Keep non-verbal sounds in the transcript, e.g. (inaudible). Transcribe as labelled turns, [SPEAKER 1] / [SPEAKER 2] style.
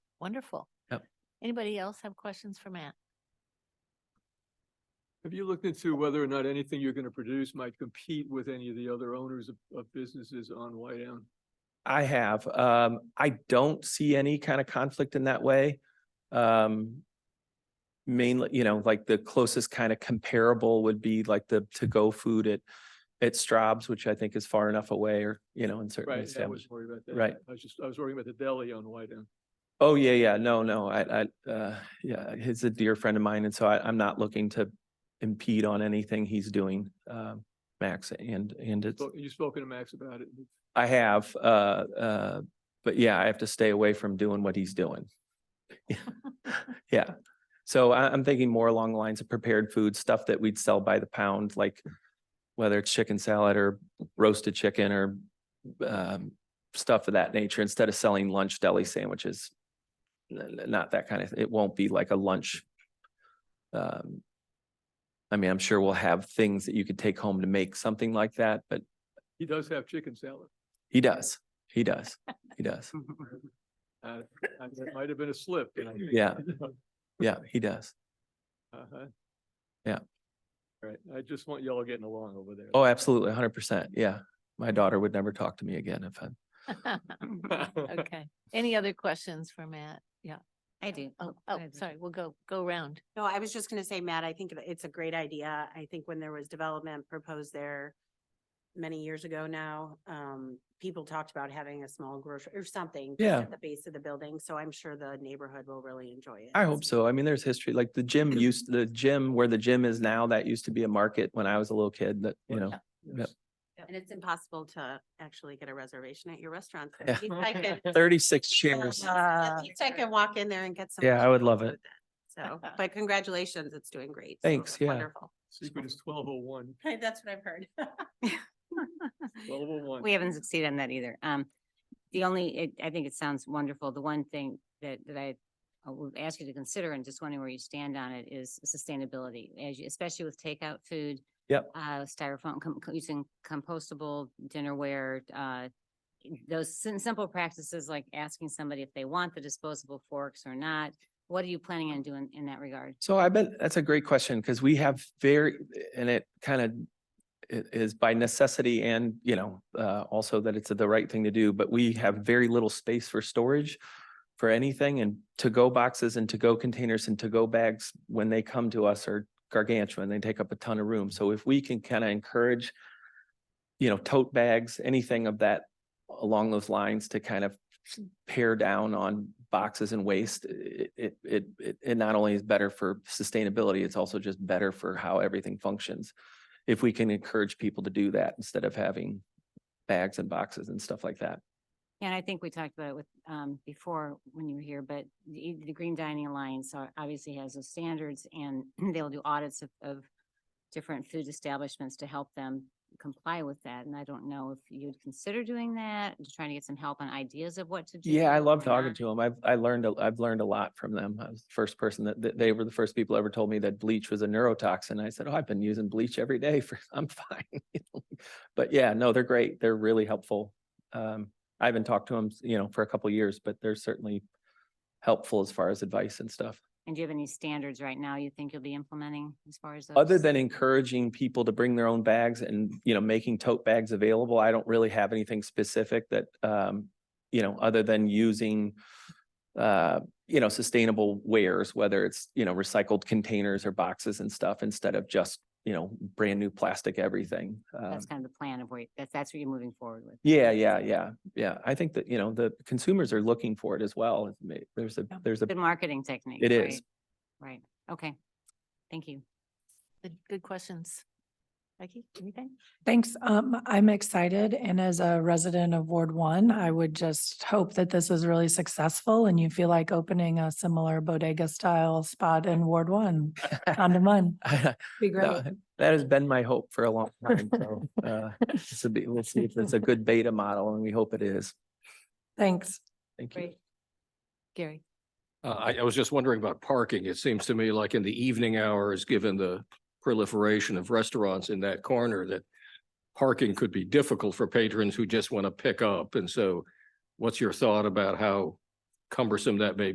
[SPEAKER 1] Wonderful.
[SPEAKER 2] Yep.
[SPEAKER 1] Anybody else have questions for Matt? (laughs)
[SPEAKER 3] Have you looked into whether or not anything you're gonna produce might compete with any of the other owners of, of businesses on White Elm?
[SPEAKER 4] I have. Um, I don't see any kind of conflict in that way. Um, mainly, you know, like the closest kind of comparable would be like the to-go food at, at Straub's, which I think is far enough away or, you know, and certainly
[SPEAKER 3] Right, yeah, I was
[SPEAKER 4] established.
[SPEAKER 3] worried about that.
[SPEAKER 4] Right.
[SPEAKER 3] I was just, I was worrying about the deli on White Elm.
[SPEAKER 4] Oh, yeah, yeah. No, no, I, I, uh, yeah, he's a dear friend of mine. And so I, I'm not looking to impede on anything he's doing, um, Max, and, and it's.
[SPEAKER 3] So You've spoken to Max about it.
[SPEAKER 4] I have, uh, uh, but yeah, I have to stay away from doing what he's doing. Yeah, so I, I'm thinking more along the lines of prepared food, stuff that we'd sell by the pound, like whether it's chicken salad or roasted chicken or um, stuff of that nature, instead of selling lunch deli sandwiches. N- n- Not that kind of, it won't be like a lunch. um, I mean, I'm sure we'll have things that you could take home to make something like that, but
[SPEAKER 3] He does have chicken
[SPEAKER 4] (laughs)
[SPEAKER 3] salad.
[SPEAKER 4] he does, he does, he does.
[SPEAKER 3] Uh, I- That might have been a slip. and I think-
[SPEAKER 4] Yeah. Yeah, he does.
[SPEAKER 3] (laughs) Uh-huh.
[SPEAKER 4] Yeah.
[SPEAKER 3] Right, I just want y'all getting along over there. (laughs)
[SPEAKER 4] Oh, absolutely, hundred percent. Yeah. My daughter would never talk to me again if I'm,
[SPEAKER 1] Okay. Any other questions for Matt? Yeah.
[SPEAKER 5] I do.
[SPEAKER 1] Oh, oh,
[SPEAKER 5] I do.
[SPEAKER 1] sorry. We'll go, go round.
[SPEAKER 5] No, I was just gonna say, Matt, I think it- it's a great idea. I think when there was development proposed there many years ago now, um, people talked about having a small grocery or something. just
[SPEAKER 4] Yeah.
[SPEAKER 5] At the base of the building, so I'm sure the neighborhood will really enjoy it.
[SPEAKER 4] I hope so. I mean, there's history, like the gym used, the gym where the gym is now, that used to be a market when I was a little kid that, you know.
[SPEAKER 3] Yes.
[SPEAKER 5] And it's impossible to actually get a reservation at your restaurant. so
[SPEAKER 4] Yeah.
[SPEAKER 5] at least
[SPEAKER 4] (laughs)
[SPEAKER 5] I could-
[SPEAKER 4] Thirty-six
[SPEAKER 5] uh,
[SPEAKER 4] chairs.
[SPEAKER 5] At least I can walk in there and get some.
[SPEAKER 4] Yeah, I would love
[SPEAKER 5] food
[SPEAKER 4] it.
[SPEAKER 5] then. So, but congratulations, it's doing great. so
[SPEAKER 4] Thanks, yeah.
[SPEAKER 5] Wonderful.
[SPEAKER 3] Secret is twelve oh one.
[SPEAKER 5] (laughs) That's what I've heard. (laughs)
[SPEAKER 3] Twelve oh one.
[SPEAKER 6] We haven't succeeded on that either. Um, the only, it, I think it sounds wonderful. The one thing that, that I uh, would ask you to consider and just wondering where you stand on it is sustainability, as you, especially with takeout food.
[SPEAKER 4] Yep.
[SPEAKER 6] Uh, styrofoam, com- co- using compostable dinnerware, uh, those sim- simple practices like asking somebody if they want the disposable forks or not. What are you planning on doing in that regard?
[SPEAKER 4] So I bet that's a great question because we have very, and it kind of it is by necessity and, you know, uh, also that it's the right thing to do, but we have very little space for storage for anything and to-go boxes and to-go containers and to-go bags, when they come to us are gargantuan. They take up a ton of room. So if we can kind of encourage, you know, tote bags, anything of that along those lines to kind of pare down on boxes and waste, it, it, it, it- it not only is better for sustainability, it's also just better for how everything functions. If we can encourage people to do that instead of having bags and boxes and stuff like that.
[SPEAKER 6] And I think we talked about it with, um, before when you were here, but the, the Green Dining Alliance are- obviously has those standards and (clears throat) they'll do audits of, of different food establishments to help them comply with that. And I don't know if you'd consider doing that, just trying to get some help on ideas of what to do.
[SPEAKER 4] Yeah, I love
[SPEAKER 6] or
[SPEAKER 4] talking
[SPEAKER 6] not.
[SPEAKER 4] to them. I've, I learned, a- I've learned a lot from them. I was the first person that, that- they were the first people ever told me that bleach was a neurotoxin. I said, oh, I've been using bleach every day for, (laughs) I'm fine. (laughs) you know? But yeah, no, they're great. They're really helpful. Um, I haven't talked to them, you know, for a couple years, but they're certainly helpful as far as advice and stuff.
[SPEAKER 6] And do you have any standards right now you think you'll be implementing as far as?
[SPEAKER 4] Other
[SPEAKER 6] those?
[SPEAKER 4] than encouraging people to bring their own bags and, you know, making tote bags available, I don't really have anything specific that, um, you know, other than using, uh, you know, sustainable wares, whether it's, you know, recycled containers or boxes and stuff instead of just, you know, brand new plastic everything. Um,
[SPEAKER 6] That's kind of the plan of where, that's, that's what you're moving forward with.
[SPEAKER 4] Yeah, yeah, yeah, yeah. I think that, you know, the consumers are looking for it as well. It's ma- There's a,
[SPEAKER 1] Yeah.
[SPEAKER 4] there's a,
[SPEAKER 6] Good marketing technique.
[SPEAKER 4] it
[SPEAKER 6] right?
[SPEAKER 4] is.
[SPEAKER 6] Right. Okay. Thank you.
[SPEAKER 1] Good, good questions. Becky, anything?
[SPEAKER 7] Thanks. Um, I'm excited and as a resident of Ward One, I would just hope that this is really successful and you feel like opening a similar bodega style spot in Ward One, on one.
[SPEAKER 4] (laughs)
[SPEAKER 7] Be great.
[SPEAKER 4] That that has been my hope for a long time.
[SPEAKER 7] (laughs)
[SPEAKER 4] So, uh, this will be, we'll see if it's a good beta model and we hope it is.
[SPEAKER 7] Thanks.
[SPEAKER 4] Thank you.
[SPEAKER 1] Gary?
[SPEAKER 8] Uh, I, I was just wondering about parking. It seems to me like in the evening hours, given the proliferation of restaurants in that corner, that parking could be difficult for patrons who just want to pick up. And so what's your thought about how cumbersome that may